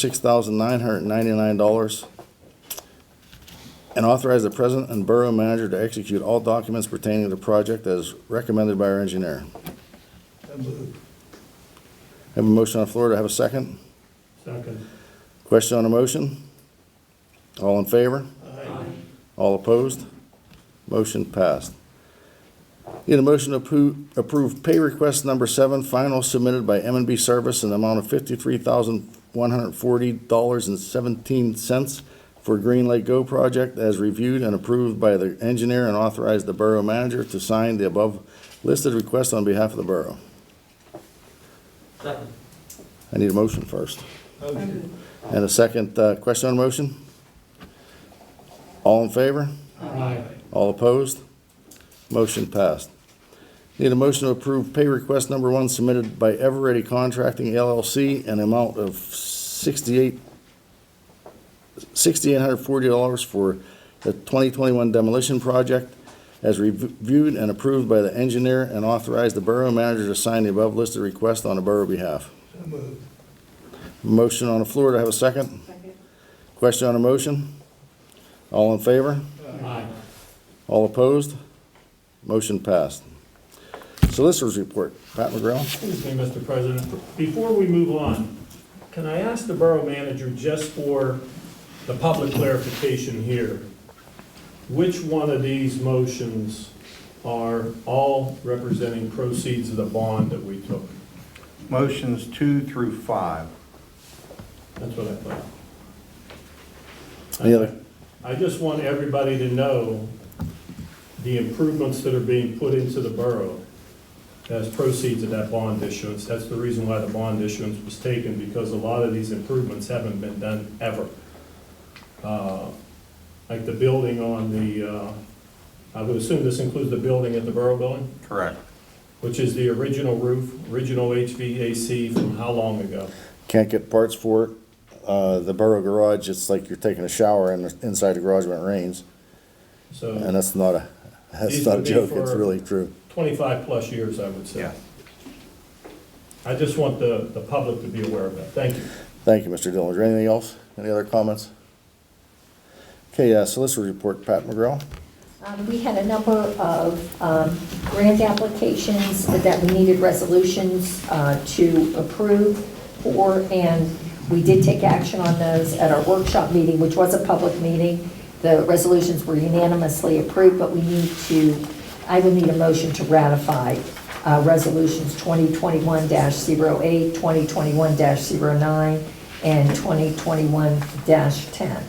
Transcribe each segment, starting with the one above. six thousand nine hundred ninety-nine dollars. And authorize the president and borough manager to execute all documents pertaining to the project as recommended by our engineer. So moved. Have a motion on the floor, to have a second? Second. Question on the motion? All in favor? Aye. All opposed? Motion passed. Need a motion to appro- approve pay request number seven, final submitted by m and B Service in the amount of fifty-three thousand one hundred forty dollars and seventeen cents for Green Lake Go project as reviewed and approved by the engineer and authorized the borough manager to sign the above listed request on behalf of the borough. Second. I need a motion first. Motion. And a second, uh, question on the motion? All in favor? Aye. All opposed? Motion passed. Need a motion to approve pay request number one submitted by Eveready Contracting LLC an amount of sixty-eight, sixty-eight hundred forty dollars for the twenty twenty-one demolition project as reviewed and approved by the engineer and authorized the borough manager to sign the above listed request on the borough behalf. So moved. Motion on the floor, to have a second? Second. Question on the motion? All in favor? Aye. All opposed? Motion passed. Solicitors report, Pat McGraw. Excuse me, Mr. President. Before we move on, can I ask the borough manager, just for the public clarification here, which one of these motions are all representing proceeds of the bond that we took? Motions two through five. That's what I thought. Any other? I just want everybody to know the improvements that are being put into the borough as proceeds of that bond issuance. That's the reason why the bond issuance was taken, because a lot of these improvements haven't been done ever. Uh, Like the building on the, uh, I would assume this includes the building at the borough building, Correct. which is the original roof, original HVAC from how long ago? Can't get parts for it. Uh, the borough garage, it's like you're taking a shower in, inside the garage when it rains. And So that's not a, that's These not a would be joke, it's for- really true. 25-plus years, I would say. Yes. I just want the, the public to be aware of that. Thank you. Thank you, Mr. Dillon. Is there anything else? Any other comments? Okay, uh, solicitor report, Pat McGraw. Um, We had a number of um, grant applications that we needed resolutions uh, to approve for, and we did take action on those at our workshop meeting, which was a public meeting. The resolutions were unanimously approved, but we need to, I will need a motion to ratify uh, resolutions 2021-08, 2021-09, and 2021-10.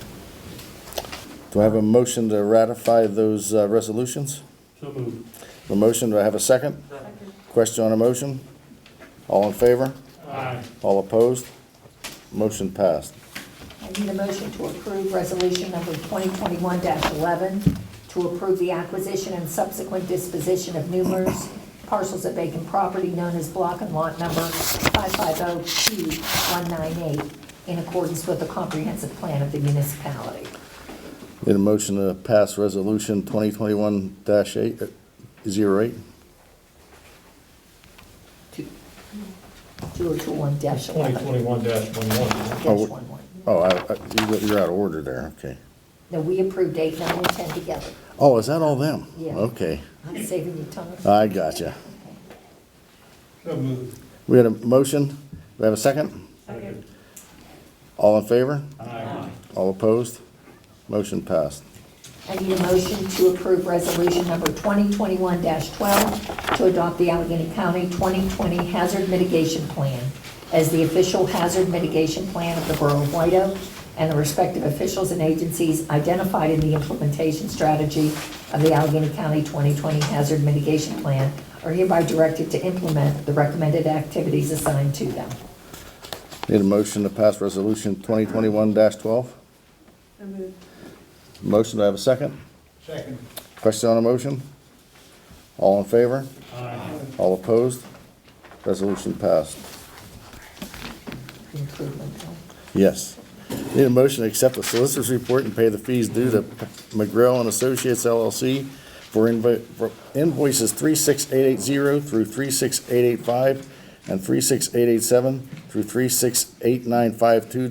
Do I have a motion to ratify those, uh, resolutions? So moved. The motion, do I have a second? Second. Question on a motion? All in favor? Aye. All opposed? Motion passed. I need a motion to approve resolution number 2021-11 to approve the acquisition and subsequent disposition of numerous parcels of vacant property known as block and lot number 550P198 in accordance with the comprehensive plan of the municipality. Need a motion to pass resolution twenty twenty-one dash eight, uh, zero eight? 2021-11. 2021-11. Oh. 11. Oh, I, I, you- you're out of order there, okay. No, we approved 8, 9, and 10 together. Oh, is that all them? Yeah. Okay, I'm saving you time. I gotcha. So moved. We had a motion, do we have a second? Second. All in favor? Aye. All opposed? Motion passed. I need a motion to approve resolution number 2021-12 to adopt the Allegheny County 2020 Hazard Mitigation Plan as the official hazard mitigation plan of the Borough of White Oak and the respective officials and agencies identified in the implementation strategy of the Allegheny County 2020 Hazard Mitigation Plan are hereby directed to implement the recommended activities assigned to them. Need a motion to pass resolution twenty twenty-one dash twelve? So moved. Motion, do I have a second? Second. Question on a motion? All in favor? Aye. All opposed? Resolution passed. Improvement Bill. Yes. Need a motion to accept the solicitor's report and pay the fees due to McGrail and Associates LLC for invo- for invoices 36880 through 36885 and 36887 through 368952